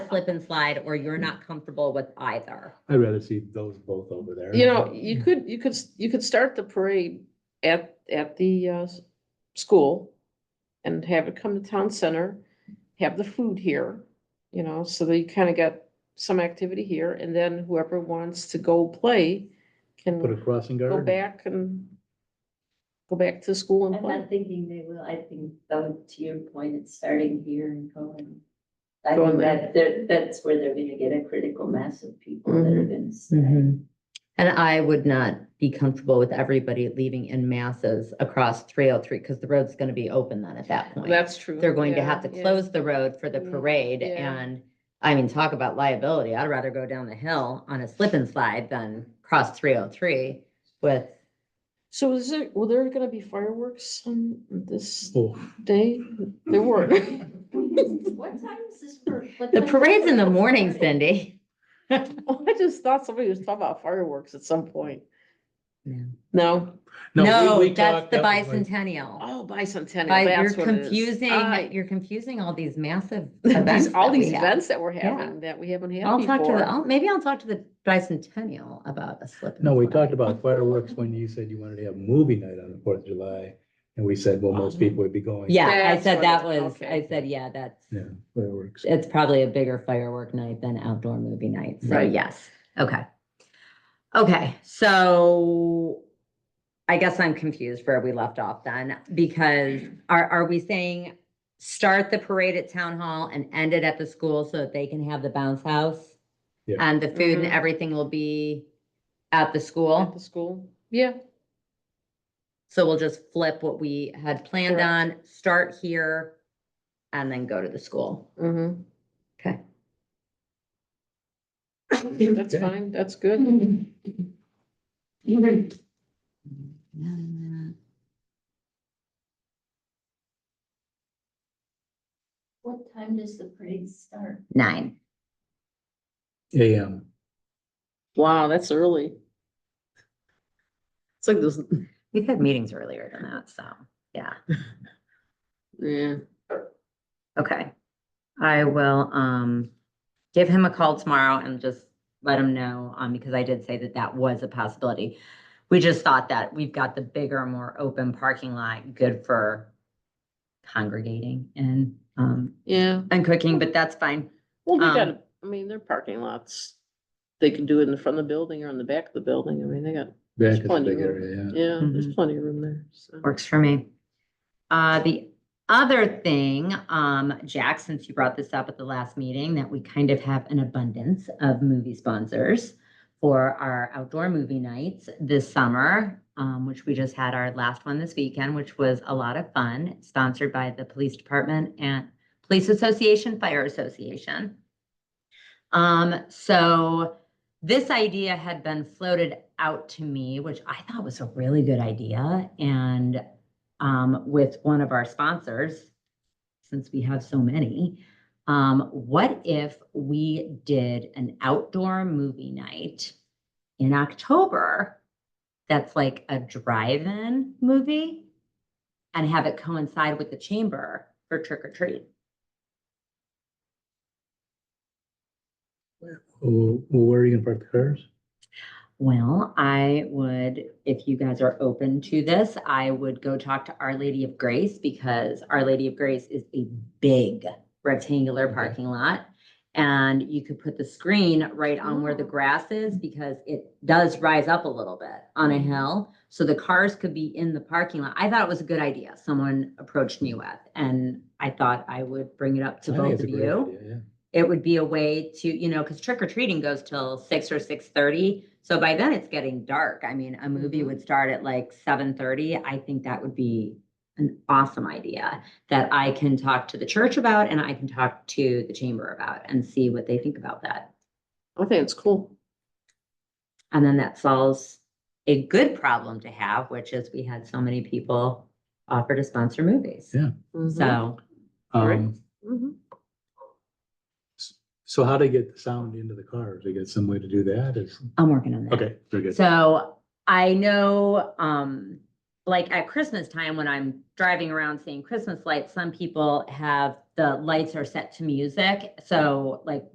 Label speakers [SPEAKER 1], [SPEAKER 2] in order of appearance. [SPEAKER 1] slip and slide or you're not comfortable with either.
[SPEAKER 2] I'd rather see those both over there.
[SPEAKER 3] You know, you could, you could, s- you could start the parade at, at the, uh, s- school and have it come to town center, have the food here, you know, so that you kind of got some activity here, and then whoever wants to go play
[SPEAKER 2] Put a
[SPEAKER 3] can
[SPEAKER 2] crossing guard.
[SPEAKER 3] go back and go back to school and
[SPEAKER 4] I'm
[SPEAKER 3] play.
[SPEAKER 4] not thinking they will, I think, though, to your point, it's starting here and going. I
[SPEAKER 3] Going
[SPEAKER 4] think
[SPEAKER 3] there.
[SPEAKER 4] that, they're- that's where they're gonna get a critical mass of people that
[SPEAKER 1] Mm-hmm.
[SPEAKER 4] are gonna stay.
[SPEAKER 3] Mm-hmm.
[SPEAKER 1] And I would not be comfortable with everybody leaving in masses across three oh three, because the road's gonna be open then at that point.
[SPEAKER 3] That's true.
[SPEAKER 1] They're going to
[SPEAKER 3] yeah,
[SPEAKER 1] have to
[SPEAKER 3] yeah.
[SPEAKER 1] close the road for the
[SPEAKER 3] Mm,
[SPEAKER 1] parade
[SPEAKER 3] yeah.
[SPEAKER 1] and, I mean, talk about liability. I'd rather go down the hill on a slip and slide than cross three oh three with,
[SPEAKER 3] So is there, were there gonna be fireworks on this
[SPEAKER 2] Oh,
[SPEAKER 3] day? There were.
[SPEAKER 4] What time is this for? what
[SPEAKER 1] Mm-hmm. the
[SPEAKER 4] time is
[SPEAKER 1] parade's in the
[SPEAKER 4] this
[SPEAKER 1] morning,
[SPEAKER 4] parade?
[SPEAKER 1] Cindy.
[SPEAKER 3] I just thought somebody was talking about fireworks at some point.
[SPEAKER 1] No.
[SPEAKER 3] No?
[SPEAKER 2] we- we
[SPEAKER 1] No, that's
[SPEAKER 2] talked-
[SPEAKER 1] the
[SPEAKER 2] that was like-
[SPEAKER 1] bicentennial.
[SPEAKER 3] Oh, bicentennial,
[SPEAKER 1] Bi- You're
[SPEAKER 3] that's what it is. I-
[SPEAKER 1] confusing, you're confusing all these massive events.
[SPEAKER 3] These, all
[SPEAKER 1] that we
[SPEAKER 3] these
[SPEAKER 1] have.
[SPEAKER 3] events that we're
[SPEAKER 1] Yeah.
[SPEAKER 3] having that we haven't had
[SPEAKER 1] I'll talk to the,
[SPEAKER 3] before.
[SPEAKER 1] I'll- maybe I'll talk to the bicentennial about a slip. and
[SPEAKER 2] No, we
[SPEAKER 1] slide.
[SPEAKER 2] talked about fireworks when you said you wanted to have movie night on the Fourth of July, and we said, well,
[SPEAKER 3] Uh-huh.
[SPEAKER 2] most people would be going.
[SPEAKER 1] Yeah, I
[SPEAKER 3] That's
[SPEAKER 1] said
[SPEAKER 3] what
[SPEAKER 1] that
[SPEAKER 3] it-
[SPEAKER 1] was, I
[SPEAKER 3] okay.
[SPEAKER 1] said, yeah, that's,
[SPEAKER 2] Yeah, fireworks.
[SPEAKER 1] it's probably a bigger firework night than outdoor movie night. So
[SPEAKER 3] Right.
[SPEAKER 1] yes, okay. Okay, so I guess I'm confused where we left off then, because are, are we saying start the parade at town hall and end it at the school so that they can have the bounce house?
[SPEAKER 2] Yeah.
[SPEAKER 1] And the food and
[SPEAKER 3] Mhm.
[SPEAKER 1] everything will be at the school?
[SPEAKER 3] At the school, yeah,
[SPEAKER 1] So we'll just flip what we had planned
[SPEAKER 3] Correct.
[SPEAKER 1] on, start here, and then go to the school.
[SPEAKER 3] hmm
[SPEAKER 1] Okay.
[SPEAKER 3] That's
[SPEAKER 2] Okay.
[SPEAKER 3] fine, that's good.
[SPEAKER 4] What time does the parade start?
[SPEAKER 1] Nine.
[SPEAKER 2] AM.
[SPEAKER 3] Wow, that's early. It's like this,
[SPEAKER 1] We've had meetings earlier than that, so, yeah,
[SPEAKER 3] yeah,
[SPEAKER 1] okay. I will, um, give him a call tomorrow and just let him know, um, because I did say that that was a possibility. We just thought that we've got the bigger, more open parking lot, good for congregating and, um,
[SPEAKER 3] yeah.
[SPEAKER 1] and cooking, but that's fine.
[SPEAKER 3] Well, they
[SPEAKER 1] Um,
[SPEAKER 3] got, I mean, their parking lots, they can do it in the front of the building or on the back of the building. I mean, they got,
[SPEAKER 2] Back is a
[SPEAKER 3] Plenty
[SPEAKER 2] big
[SPEAKER 3] of room.
[SPEAKER 2] area, yeah.
[SPEAKER 3] yeah, there's
[SPEAKER 1] Mhm.
[SPEAKER 3] plenty of room there. so.
[SPEAKER 1] Works for me. Uh, the other thing, um, Jack, since you brought this up at the last meeting, that we kind of have an abundance of movie sponsors for our outdoor movie nights this summer, um, which we just had our last one this weekend, which was a lot of fun, sponsored by the police department and police association, fire association. Um, so this idea had been floated out to me, which I thought was a really good idea. And um, with one of our sponsors, since we have so many, um, what if we did an outdoor movie night in October that's like a drive in movie and have it coincide with the chamber for trick or treat?
[SPEAKER 2] Well, Oh, well, where are you gonna park the cars?
[SPEAKER 1] Well, I would, if you guys are open to this, I would go talk to Our Lady of Grace because Our Lady of Grace is a big rectangular
[SPEAKER 2] Okay.
[SPEAKER 1] parking lot. And you could put the screen right on where the
[SPEAKER 3] Oh.
[SPEAKER 1] grass is because it does rise up a little bit on a
[SPEAKER 2] Mm-hmm.
[SPEAKER 1] hill. So the cars could be in the parking lot. I thought it was a good idea. Someone approached me with, and I thought I would bring it up to
[SPEAKER 2] I think
[SPEAKER 1] both
[SPEAKER 2] it's a
[SPEAKER 1] of
[SPEAKER 2] great
[SPEAKER 1] you
[SPEAKER 2] idea, yeah.
[SPEAKER 1] it would be a way to, you know, because trick or treating goes till six or six thirty. So by then it's getting dark. I mean, a movie
[SPEAKER 3] Mhm.
[SPEAKER 1] would start at like seven thirty. I think that would be an awesome idea that I can talk to the church about and I can talk to the chamber about and see what they think about that.
[SPEAKER 3] I think it's cool.
[SPEAKER 1] And then that solves a good problem to have, which is we had so many people offer to sponsor movies.
[SPEAKER 2] Yeah.
[SPEAKER 3] Mhm.
[SPEAKER 1] So
[SPEAKER 3] Right.
[SPEAKER 2] Um,
[SPEAKER 3] Mhm.
[SPEAKER 2] so how do you get the sound into the cars? They got some way to do that? Is,
[SPEAKER 1] I'm working on that.
[SPEAKER 2] okay, very good.
[SPEAKER 1] So I know, um, like at Christmas time, when I'm driving around seeing Christmas lights, some people have, the lights are set to music. So like